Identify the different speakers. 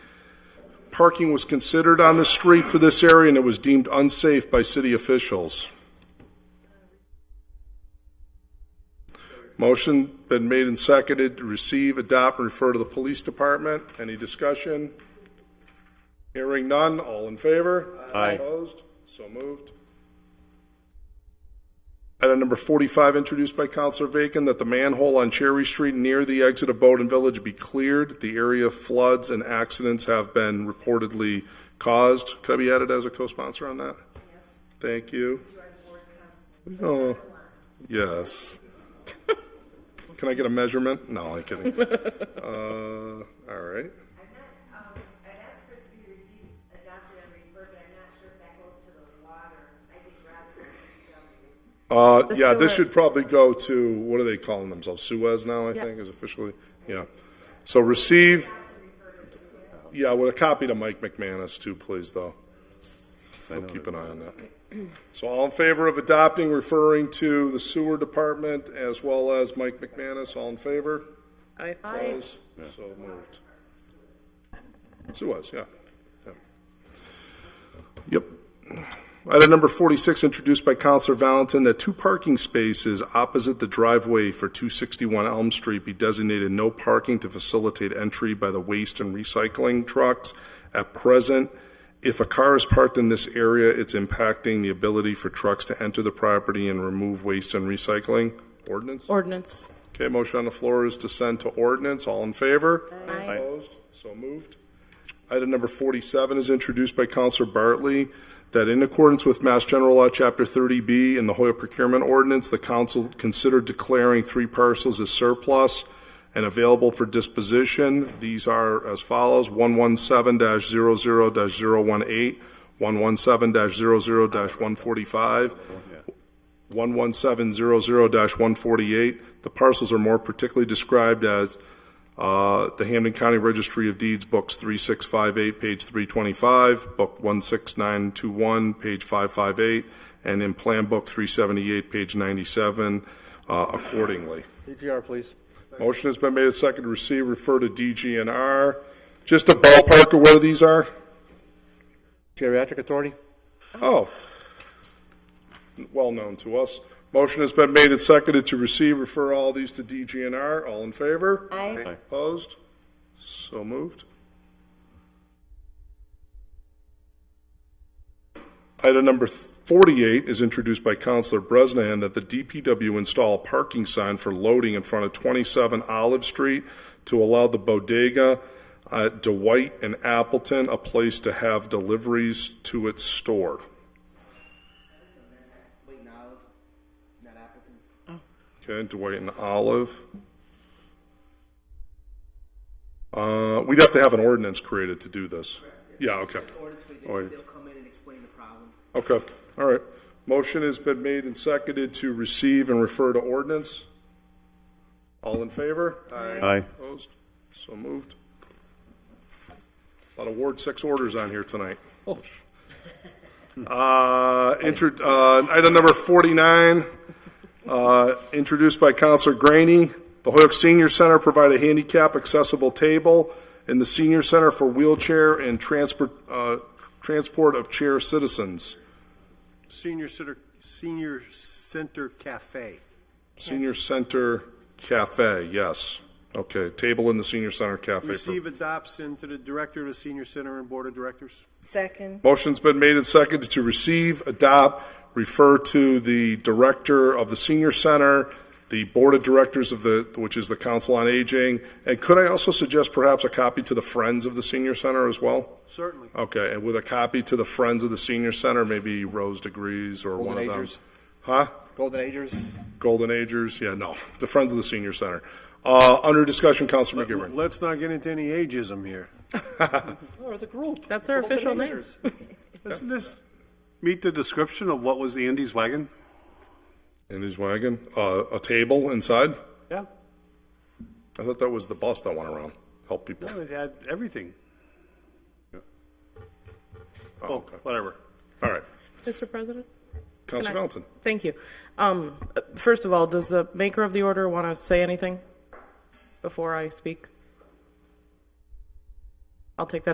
Speaker 1: parking was considered on the street for this area, and it was deemed unsafe by city officials. Motion been made and seconded to receive, adopt, and refer to the police department. Any discussion? Hearing none, all in favor?
Speaker 2: Aye.
Speaker 1: Opposed? So moved. Item number 45, introduced by Counselor Bacon, that the manhole on Cherry Street near the exit of Bowden Village be cleared. The area floods and accidents have been reportedly caused. Could I be added as a co-sponsor on that? Yes. Thank you. Oh, yes. Can I get a measurement? No, I'm kidding. Uh, All right.
Speaker 3: I'm not, um, I asked for it to be received, adopted, and referred, but I'm not sure if that goes to the water. I think Rob's on
Speaker 1: Uh,
Speaker 3: DPW.
Speaker 1: yeah, this
Speaker 4: Suez.
Speaker 1: should probably go to, what are they calling themselves? Suez now, I think, is officially, yeah. So receive, yeah, with a copy to Mike McManus too, please, though. I'll keep an eye on that. So all in favor of adopting, referring to the sewer department as well as Mike McManus, all in favor?
Speaker 4: Aye.
Speaker 1: Opposed? So moved. Suez, yeah. Yeah. Yep. Item number 46, introduced by Counselor Valentin, that two parking spaces opposite the driveway for 261 Elm Street be designated no parking to facilitate entry by the waste and recycling trucks. At present, if a car is parked in this area, it's impacting the ability for trucks to enter the property and remove waste and recycling. Ordinance?
Speaker 4: Ordinance.
Speaker 1: Okay, motion on the floor is to send to ordinance. All in favor?
Speaker 4: Aye.
Speaker 1: Opposed? So moved. Item number 47 is introduced by Counselor Bartley, that in accordance with Mass General Law, Chapter 30B, and the Hoyle Procurement Ordinance, the council considered declaring three parcels as surplus and available for disposition. These are as follows, 117-00-018, 117-00-145, 11700-148. The parcels are more particularly described as uh, the Hamden County Registry of Deeds, Books 3658, page 325, Book 16921, page 558, and in Plan Book 378, page 97, uh, accordingly.
Speaker 2: DGR, please.
Speaker 1: Motion has been made and seconded to receive, refer to DGNR. Just a ballpark of where these are?
Speaker 2: Geriatric Authority?
Speaker 1: Oh, well known to us. Motion has been made and seconded to receive, refer all these to DGNR. All in favor?
Speaker 3: Aye.
Speaker 2: Aye.
Speaker 1: Opposed? So moved. Item number 48 is introduced by Counselor Bresnahan that the DPW install a parking sign for loading in front of 27 Olive Street to allow the bodega at Dwight and Appleton a place to have deliveries to its store.
Speaker 5: Wait, now, not Appleton.
Speaker 1: Okay, Dwight and Olive. Uh, we'd have to have an ordinance created to do this. Yeah, okay.
Speaker 5: Ordinance, we just-
Speaker 1: Ordinance.
Speaker 5: they'll come in and explain the problem.
Speaker 1: Okay, all right. Motion has been made and seconded to receive and refer to ordinance. All in favor?
Speaker 2: Aye.
Speaker 1: Opposed? So moved. A lot of Ward Six orders on here tonight. Uh, intro, uh, item number forty-nine, uh, introduced by Counselor Graney. The Hoyok Senior Center provide a handicap accessible table in the senior center for wheelchair and transport, uh, transport of chair citizens.
Speaker 6: Senior Center, Senior Center Cafe.
Speaker 1: Senior Center Cafe, yes. Okay, table in the senior center cafe. for-
Speaker 6: Receive, adopt, send to the Director of the Senior Center and Board of Directors.
Speaker 4: Second.
Speaker 1: Motion's been made and seconded to receive, adopt, refer to the director of the senior center, the board of directors of the, which is the council on aging, and could I also suggest perhaps a copy to the friends of the senior center as well?
Speaker 6: Certainly.
Speaker 1: Okay, and with a copy to the friends of the senior center, maybe Rose Degrees or one of
Speaker 2: Golden
Speaker 1: them.
Speaker 2: Agers.
Speaker 1: Huh?
Speaker 2: Golden Agers?
Speaker 1: Golden Agers, yeah, no, the friends of the senior center. Uh, under discussion, Councilor McGivern.
Speaker 6: Let's not get into any ageism here.
Speaker 2: Or the group.
Speaker 4: That's our
Speaker 2: Golden
Speaker 4: official name.
Speaker 2: Agers.
Speaker 7: Doesn't this meet the description of what was Andy's wagon?
Speaker 1: In his wagon, uh, a table inside?
Speaker 7: Yeah,
Speaker 1: I thought that was the bus that went around, help people.
Speaker 7: no, it had everything.
Speaker 1: Oh,
Speaker 7: Oh,
Speaker 1: okay.
Speaker 7: whatever.
Speaker 1: All right.
Speaker 4: Mr. President?
Speaker 1: Councilor
Speaker 4: Can I-
Speaker 1: Melton.
Speaker 4: Thank you. Um, uh, First of all, does the maker of the order want to say anything before I speak? I'll take that